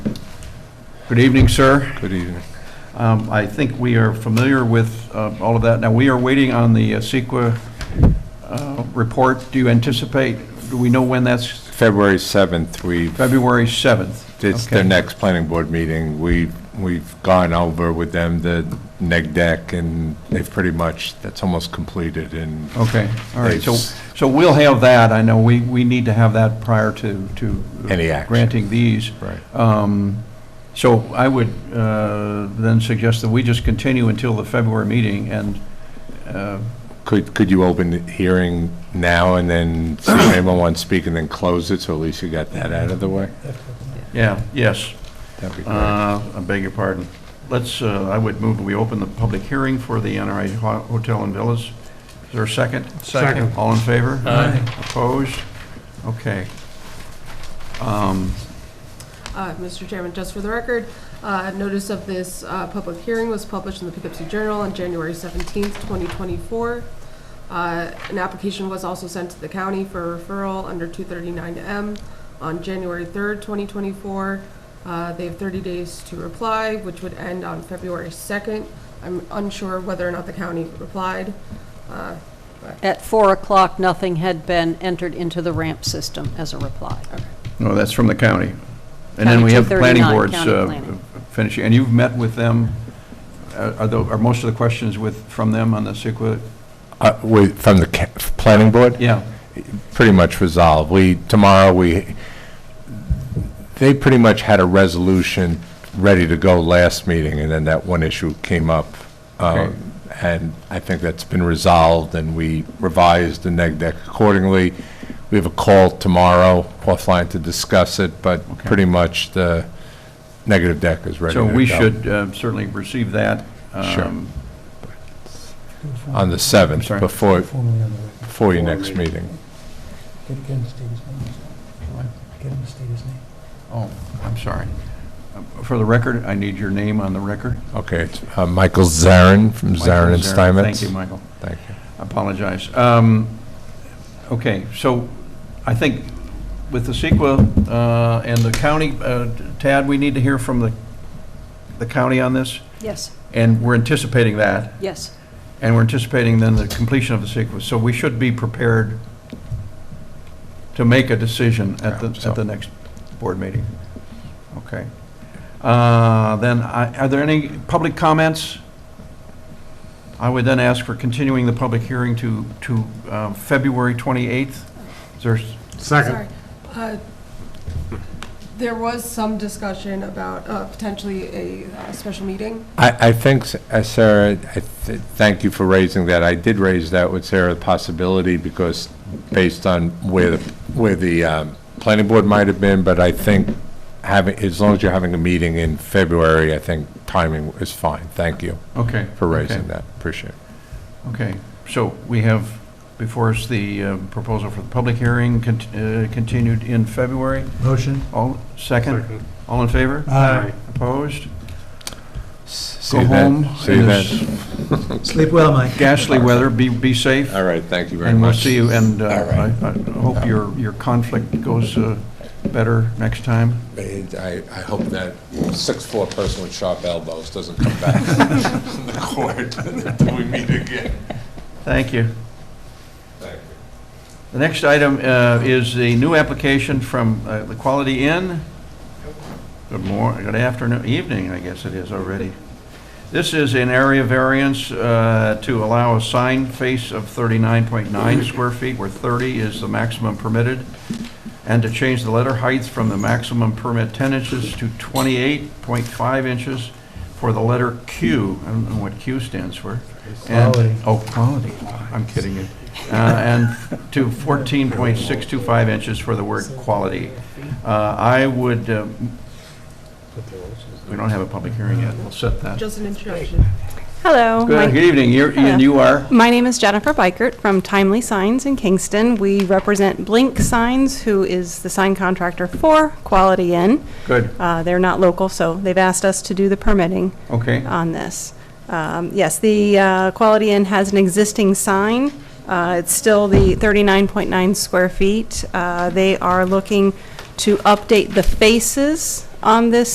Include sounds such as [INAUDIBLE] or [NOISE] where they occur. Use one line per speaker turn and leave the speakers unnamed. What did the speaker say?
Good evening, sir.
Good evening.
Um, I think we are familiar with uh, all of that. Now, we are waiting on the uh, CEQA uh, report. Do you anticipate, do we know when that's?
February 7th, we,
February 7th?
it's
Okay.
their next planning board meeting. We, we've gone over with them the neg deck, and they've pretty much, that's almost completed, and
Okay, all right, so,
It's-
so we'll have that, I know, we, we need to have that prior to, to.
Any action.
Granting these.
Right.
Um, So I would uh, then suggest that we just continue until the February meeting, and, uh,
could, could you open the hearing now and then see
[COUGHS]
if anyone wants to speak and then close it, so at least you got that out of the way?
yeah, yes,
That'd be great.
uh, I beg your pardon. Let's, uh, I would move, that we open the public hearing for the NRI Ho- Hotel and Villas. Is there a second?
Second.
All in favor?
Aye.
Opposed? Okay. Um,
Uh, Mr. Chairman, just for the record, uh, notice of this uh, public hearing was published in the Poughkeepsie Journal on January 17th, 2024. Uh, An application was also sent to the county for referral under 239M on January 3rd, 2024. Uh, They have 30 days to reply, which would end on February 2nd. I'm unsure whether or not the county replied. Uh,
At 4 o'clock, nothing had been entered into the ramp system as a reply.
No, that's from the county. And then we have the planning
County
boards
239,
uh,
county planning.
finishing, and you've met with them, Uh, are tho- are most of the questions with, from them on the CEQA?
Uh, Wait, from the ca- planning board?
Yeah,
pretty much resolved. We, tomorrow, we, they pretty much had a resolution ready to go last meeting, and then that one issue came up.
Okay.
Um, And I think that's been resolved, and we revised the neg deck accordingly. We have a call tomorrow offline to discuss it, but
Okay.
pretty much the negative deck is ready to
so
go.
we should uh, certainly receive that.
Sure.
um,
On the
I'm
7th,
sorry.
before,
Formally on the record.
before your next meeting.
Get get him to state his name. Get him to state his name.
Oh, I'm sorry. Um, For the record, I need your name on the record.
Okay, it's uh, Michael Zarin from
Michael
Zarin and Steinmetz.
Thank you, Michael.
Thank you.
Apologize. Um, Okay, so I think with the CEQA uh, and the county, uh, Tad, we need to hear from the the county on this?
Yes,
And we're anticipating that,
yes.
and we're anticipating then the completion of the sequence. So we should be prepared to make a decision at the,
Yeah, so-
at the next board meeting. Okay. Uh, Then, I- are there any public comments? I would then ask for continuing the public hearing to, to uh, February 28th. Is there,
Sorry. Uh, There was some discussion about uh, potentially a uh, special meeting.
I, I think, s- uh, Sarah, I th- thank you for raising that. I did raise that with Sarah, the possibility, because based on where, the where the um, planning board might have been, but I think having, as long as you're having a meeting in February, I think timing is fine. Thank you
okay.
for
okay.
raising that. Appreciate it.
Okay, so we have before us the uh, proposal for the public hearing cont- uh, continued in February.
Motion?
All, second? All in favor?
Aye.
Opposed?
S-
Go
see that?
home
See
in
that?
this
Sleep well, Mike.
ghastly weather, be, be safe.
All right, thank you very much.
And we'll see you, and uh,
All right.
I I hope your, your conflict goes uh, better next time.
And I, I hope that six-four person with sharp elbows doesn't come back [LAUGHS] in the court [LAUGHS] until we meet again.
Thank you.
Thank you.
The next item uh, is the new application from uh, the Quality Inn. Good morning, good afternoon, evening, I guess it is already. This is an area variance uh, to allow a sign face of 39.9 square feet, where 30 is the maximum permitted, and to change the letter heights from the maximum permit 10 inches to 28.5 inches for the letter Q. I don't know what Q stands for. And-
Quality.
Oh, quality. I'm kidding you. Uh, And to 14.625 inches for the word quality. Uh, I would, uh, we don't have a public hearing yet, we'll set that.
Just an introduction.
Hello. my-
Good good evening, You're- Ian, you
[LAUGHS]
are?
My name is Jennifer Bikert from Timely Signs in Kingston. We represent Blink Signs, who is the sign contractor for Quality Inn.
Good,
Uh, They're not local, so they've asked us to do the permitting
okay.
on this. Um, Yes, the uh, Quality Inn has an existing sign. Uh, It's still the 39.9 square feet. Uh, They are looking to update the faces on this